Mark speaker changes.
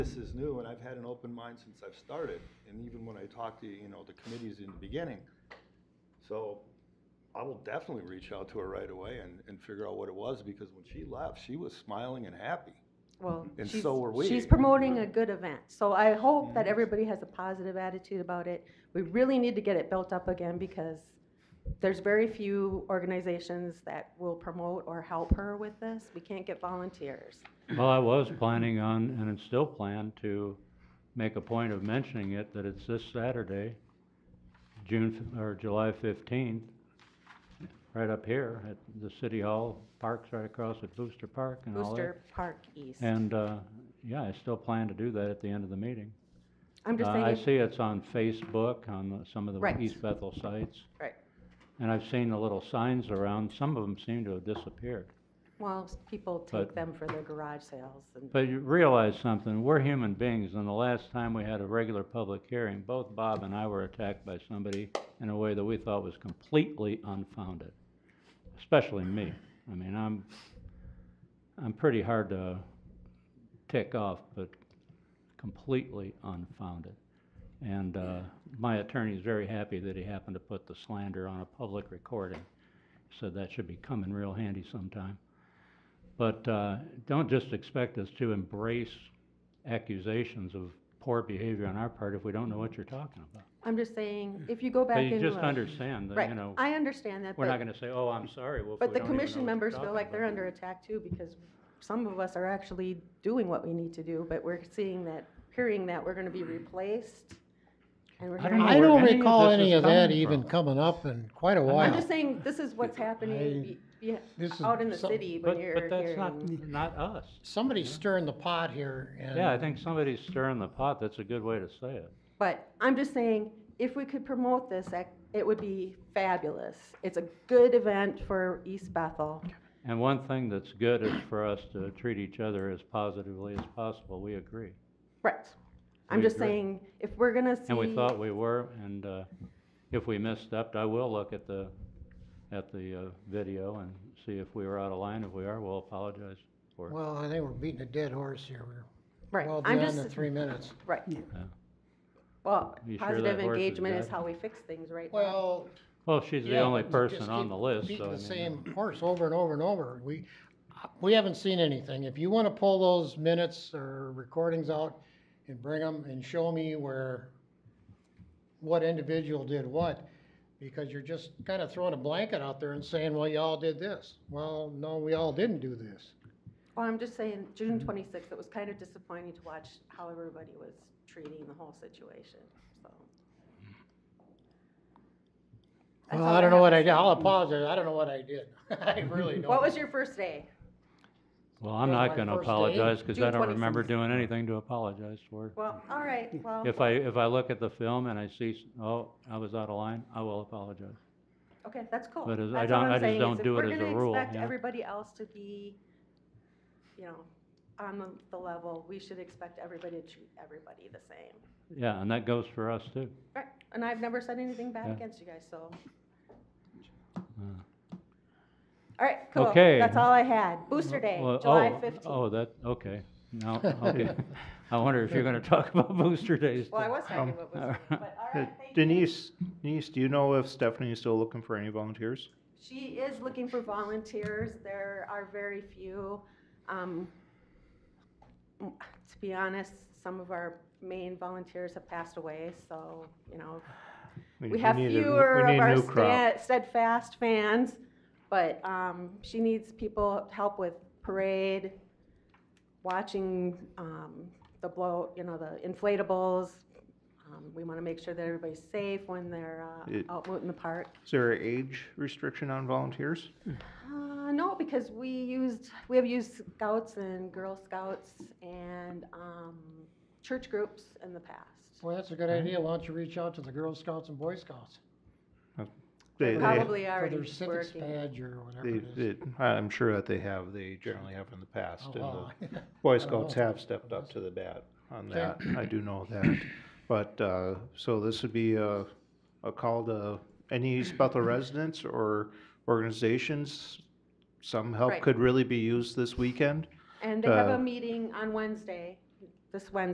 Speaker 1: This is new, and I've had an open mind since I've started, and even when I talked to, you know, the committees in the beginning. So I will definitely reach out to her right away and, and figure out what it was, because when she left, she was smiling and happy.
Speaker 2: Well,
Speaker 1: And
Speaker 2: she's-
Speaker 1: so were we.
Speaker 2: She's promoting a good event, so I hope that everybody has a positive attitude about it. We really need to get it built up again because there's very few organizations that will promote or help her with this. We can't get volunteers.
Speaker 3: Well, I was planning on, and it's still planned, to make a point of mentioning it, that it's this Saturday, June, f- or July fifteenth, right up here at the City Hall, parks right across at Booster Park and all that.
Speaker 2: Booster Park East.
Speaker 3: And, uh, yeah, I still plan to do that at the end of the meeting.
Speaker 2: I'm just
Speaker 3: Uh, I
Speaker 2: saying,
Speaker 3: see it's on Facebook, on the- some of
Speaker 2: Right.
Speaker 3: the East Bethel sites.
Speaker 2: Right.
Speaker 3: And I've seen the little signs around, some of them seem to have disappeared.
Speaker 2: well, people take
Speaker 3: But-
Speaker 2: them for their garage sales and,
Speaker 3: But you realize something, we're human beings, and the last time we had a regular public hearing, both Bob and I were attacked by somebody in a way that we thought was completely unfounded, especially me. I mean, I'm, I'm pretty hard to tick off, but completely unfounded. And, uh, my attorney's very happy that he happened to put the slander on a public recording. Said that should be coming real handy sometime. But uh, don't just expect us to embrace accusations of poor behavior on our part if we don't know what you're talking about.
Speaker 2: I'm just saying, if you go back
Speaker 3: But
Speaker 2: into.
Speaker 3: you just
Speaker 2: a-
Speaker 3: understand that, you know,
Speaker 2: Right, I understand that,
Speaker 3: we're not
Speaker 2: but,
Speaker 3: gonna say, oh, I'm sorry, well, if
Speaker 2: but
Speaker 3: we
Speaker 2: the
Speaker 3: don't even know
Speaker 2: commission
Speaker 3: what you're
Speaker 2: members feel
Speaker 3: talking
Speaker 2: like they're
Speaker 3: about."
Speaker 2: under attack too because some of us are actually doing what we need to do, but we're seeing that, hearing that we're gonna be replaced. And we're
Speaker 3: I don't
Speaker 2: hearing,
Speaker 3: know
Speaker 4: I
Speaker 3: where
Speaker 4: don't
Speaker 3: any of
Speaker 4: recall
Speaker 3: this
Speaker 4: any
Speaker 3: is
Speaker 4: of that
Speaker 3: coming
Speaker 4: even
Speaker 3: from.
Speaker 4: coming up in quite a
Speaker 2: I'm
Speaker 4: while.
Speaker 2: just saying, this is what's happening, y-
Speaker 4: This is
Speaker 2: yeah, out in the
Speaker 4: something-
Speaker 2: city when
Speaker 3: But,
Speaker 2: you're
Speaker 3: but that's
Speaker 2: hearing.
Speaker 3: not, not us.
Speaker 4: Somebody's stirring the pot here and.
Speaker 3: Yeah, I think somebody's stirring the pot, that's a good way to say it.
Speaker 2: But I'm just saying, if we could promote this, that- it would be fabulous. It's a good event for East Bethel.
Speaker 3: And one thing that's good is for us to treat each other as positively as possible, we agree.
Speaker 2: Right. I'm
Speaker 3: We
Speaker 2: just
Speaker 3: agree.
Speaker 2: saying, if we're gonna see.
Speaker 3: And we thought we were, and, uh, if we misstepped, I will look at the, at the, uh, video and see if we were out of line. If we are, we'll apologize for it.
Speaker 4: Well, I think we're beating a dead horse here. We're
Speaker 2: Right,
Speaker 4: well
Speaker 2: I'm
Speaker 4: beyond the
Speaker 2: just,
Speaker 4: three minutes.
Speaker 2: right. Well,
Speaker 3: You sure
Speaker 2: positive
Speaker 3: that horse is
Speaker 2: engagement is
Speaker 3: dead?
Speaker 2: how we fix things right now.
Speaker 4: Well.
Speaker 3: Well, she's the
Speaker 4: yeah,
Speaker 3: only
Speaker 4: we just
Speaker 3: person on
Speaker 4: keep
Speaker 3: the list, so. I
Speaker 4: Beating the
Speaker 3: mean, uh,
Speaker 4: same horse over and over and over. We, we haven't seen anything. If you want to pull those minutes or recordings out and bring them and show me where, what individual did what, because you're just kind of throwing a blanket out there and saying, well, y'all did this. Well, no, we all didn't do this.
Speaker 2: Well, I'm just saying, June
Speaker 3: Mm-hmm.
Speaker 2: twenty-sixth, it was kind of disappointing to watch how everybody was treating the whole situation, so. That's
Speaker 4: Well,
Speaker 2: all
Speaker 4: I don't know what
Speaker 2: have
Speaker 4: I
Speaker 2: to
Speaker 4: did. I'll
Speaker 2: say.
Speaker 4: apologize. I don't know what I did. I really don't.
Speaker 2: What was your first day?
Speaker 3: Well, I'm
Speaker 4: Well,
Speaker 3: not
Speaker 4: my
Speaker 3: gonna
Speaker 4: first day-
Speaker 3: apologize, cause I
Speaker 2: June
Speaker 3: don't remember
Speaker 2: 27th.
Speaker 3: doing anything to apologize for.
Speaker 2: Well, all right,
Speaker 4: Oh.
Speaker 2: well,
Speaker 3: If I, if I look at the film and I see, s- oh, I was out of line, I will apologize.
Speaker 2: okay, that's cool.
Speaker 3: But as- I
Speaker 2: That's
Speaker 3: don't-
Speaker 2: all I'm
Speaker 3: I just
Speaker 2: saying is
Speaker 3: don't
Speaker 2: if
Speaker 3: do it as a
Speaker 2: We're
Speaker 3: rule,
Speaker 2: gonna expect
Speaker 3: yeah.
Speaker 2: everybody else to be, you know, on the, the level, we should expect everybody to treat everybody the same.
Speaker 3: Yeah, and that goes for us too.
Speaker 2: Right, and I've never said anything bad
Speaker 3: Yeah.
Speaker 2: against you guys, so.
Speaker 3: Uh.
Speaker 2: All right, cool.
Speaker 3: Okay.
Speaker 2: That's all I had. Booster Day,
Speaker 3: Well,
Speaker 2: July
Speaker 3: oh,
Speaker 2: fifteenth.
Speaker 3: Oh, that, okay. Now, okay. I wonder if you're gonna talk about booster days.
Speaker 2: Well, I
Speaker 3: too.
Speaker 2: was talking about
Speaker 3: all
Speaker 2: Booster Day,
Speaker 3: right.
Speaker 2: but all
Speaker 5: Uh,
Speaker 2: right, thank you.
Speaker 5: Denise, Denise, do you know if Stephanie is still looking for any volunteers?
Speaker 2: She is looking for volunteers. There are very few. Um, m- To be honest, some of our main volunteers have passed away, so, you know, we have
Speaker 5: need a-
Speaker 2: fewer
Speaker 5: we need
Speaker 2: of
Speaker 5: a
Speaker 2: our
Speaker 5: new crop.
Speaker 2: sta- steadfast fans, but um, she needs people help with parade, watching um, the blow, you know, the inflatables. Um, We want to make sure that everybody's safe when they're uh,
Speaker 5: It-
Speaker 2: out in the park.
Speaker 5: Is there an age restriction on volunteers?
Speaker 2: Uh, no, because we used, we have used scouts and Girl Scouts and um, church groups in the past.
Speaker 4: Well, that's a good idea. Why don't you reach out to the Girl Scouts and Boy Scouts?
Speaker 5: They, they,
Speaker 2: Probably
Speaker 4: For
Speaker 2: already
Speaker 4: their civics
Speaker 2: working.
Speaker 4: badge or whatever
Speaker 5: they,
Speaker 4: it is.
Speaker 5: they- I'm sure that they have, they generally have in the past.
Speaker 4: Oh,
Speaker 5: and the-
Speaker 4: wow.
Speaker 5: Boy
Speaker 4: don't
Speaker 5: Scouts
Speaker 4: know.
Speaker 5: have stepped up to the bat on
Speaker 4: Okay.
Speaker 5: that, I do know that. But, uh, so this would be a, a call to any East Bethel residents or organizations. Some help
Speaker 2: Right.
Speaker 5: could really be used this weekend.
Speaker 2: And they have
Speaker 5: uh,
Speaker 2: a meeting on Wednesday, this Wednesday.